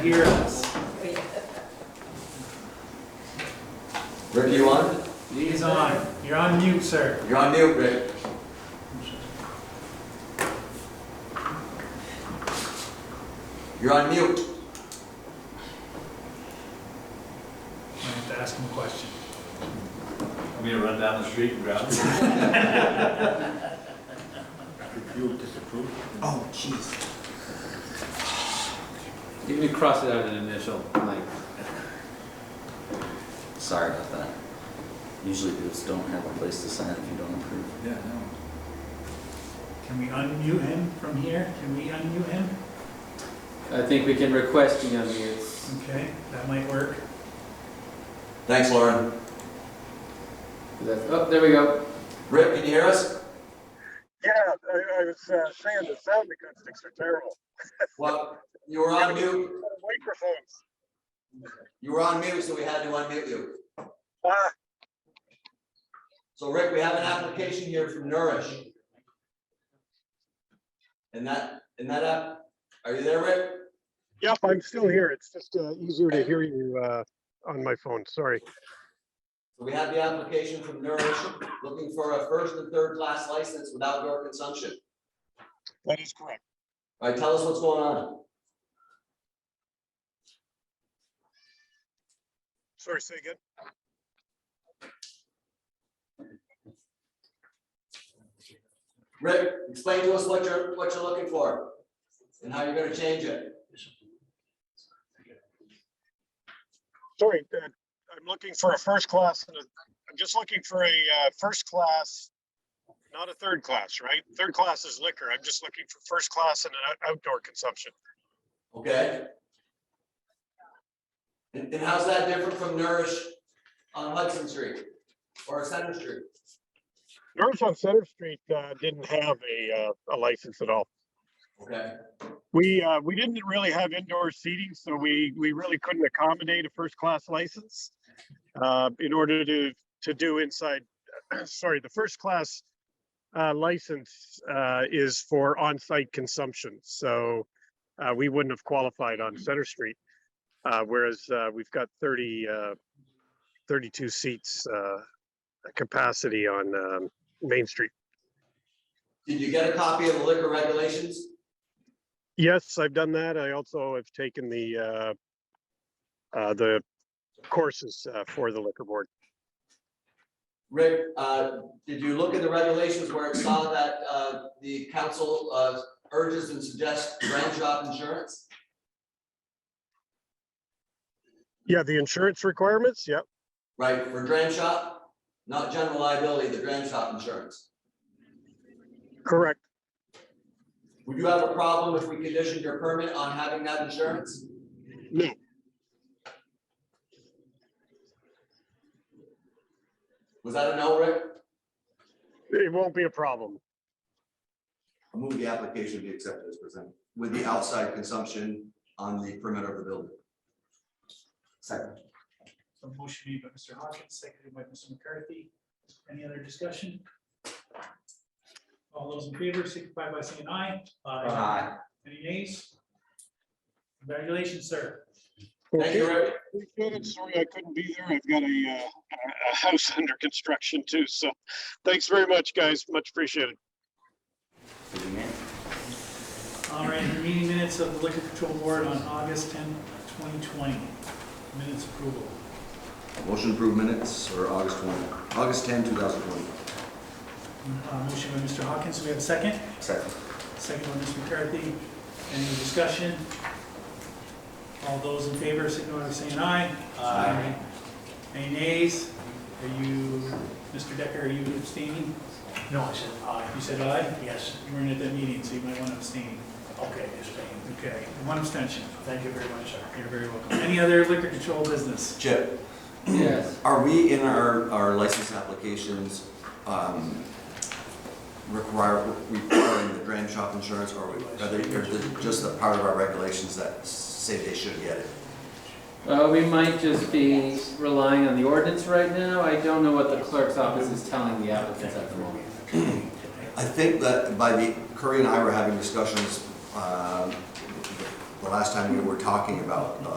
hear us. Rick, you on? He's on. You're on mute, sir. You're on mute, Rick. You're on mute. I have to ask him a question. Want me to run down the street and grab it? Approve, disapprove? Oh, jeez. You can cross it out an initial, like, Sorry about that. Usually dudes don't have a place to sign if you don't approve. Yeah, no. Can we unmute him from here? Can we unmute him? I think we can request the unmutes. Okay, that might work. Thanks, Lauren. That's- Oh, there we go. Rick, can you hear us? Yeah, I, I was uh, saying the sound acoustics are terrible. What? You were on mute. Microphones. You were on mute, so we had to unmute you. Ah, So Rick, we have an application here from Nourish. And that, and that app, are you there, Rick? yep, I'm still here. It's just uh, easier to hear you uh, on my phone. Sorry. So we have the application from Nourish, looking for a first and third class license with outdoor consumption. That is correct. All right, tell us what's going on. Sorry, say again. Rick, explain to us what you're, what you're looking for and how you're gonna change it. Sorry, uh, I'm looking for a first class. and a- I'm just looking for a uh, first class, not a third class, right? Third class is liquor. I'm just looking for first class and an out- outdoor consumption. Okay. And, and how's that different from Nourish on Hudson Street or Center Street? Nourish on Center Street uh, didn't have a, uh, a license at all. Okay, We, uh, we didn't really have indoor seating, so we, we really couldn't accommodate a first-class license. Uh, in order to, to do inside, sorry, the first-class, uh, license, uh, is for on-site consumption, so, uh, we wouldn't have qualified on Center Street. Uh, whereas, uh, we've got thirty, uh, thirty-two seats, uh, capacity on, um, Main Street. did you get a copy of the liquor regulations? Yes, I've done that. I also have taken the, uh, uh, the courses, uh, for the liquor board. Rick, uh, did you look at the regulations where it saw that uh, the council uh, urges and suggests ground shop insurance? Yeah, the insurance requirements. Yep. Right, for dram shop, not general liability, the dram shop insurance. Correct. Would you have a problem if we conditioned your permit on having that insurance? No. Was that a no, Rick? It won't be a problem. I move the application be accepted as presented with the outside consumption on the perimeter of the building. Second. So motion made by Mr. Hawkins, seconded by Mr. McCarthy. Any other discussion? All those in favor signify by saying aye. Any nays? Congratulations, sir. Thank you, Okay. Rick. appreciate it. Sorry I couldn't be there. I've got a, uh, a- a house under construction too. So thanks very much, guys. Much appreciated. Did you hear? All right, the meeting minutes of the Liquor Control Board on August 10, 2020. Minutes approval. Motion approved minutes for August 20, August 10, 2020. Uh, Motion by Mr. Hawkins, we have a second. Second. Second by Mr. McCarthy. Any discussion? All those in favor, signify by saying aye. Aye. Any nays? Are you, Mr. Decker, are you abstaining? No, I said aye. You said aye? Yes, You weren't at that meeting, so you might want to abstain. okay, it's been. Okay, one abstention. Thank you very much, sir. You're very welcome. Any other liquor control business? Chip, Yes. are we in our, our license applications um, require, requiring the dram shop insurance, or are they, or is it just a part of our regulations that say they should get it? Uh, we might just be relying on the ordinance right now. I don't know what the clerk's office is telling the applicants at the moment. I think that by the, Curry and I were having discussions um, the the last time we were talking about, uh,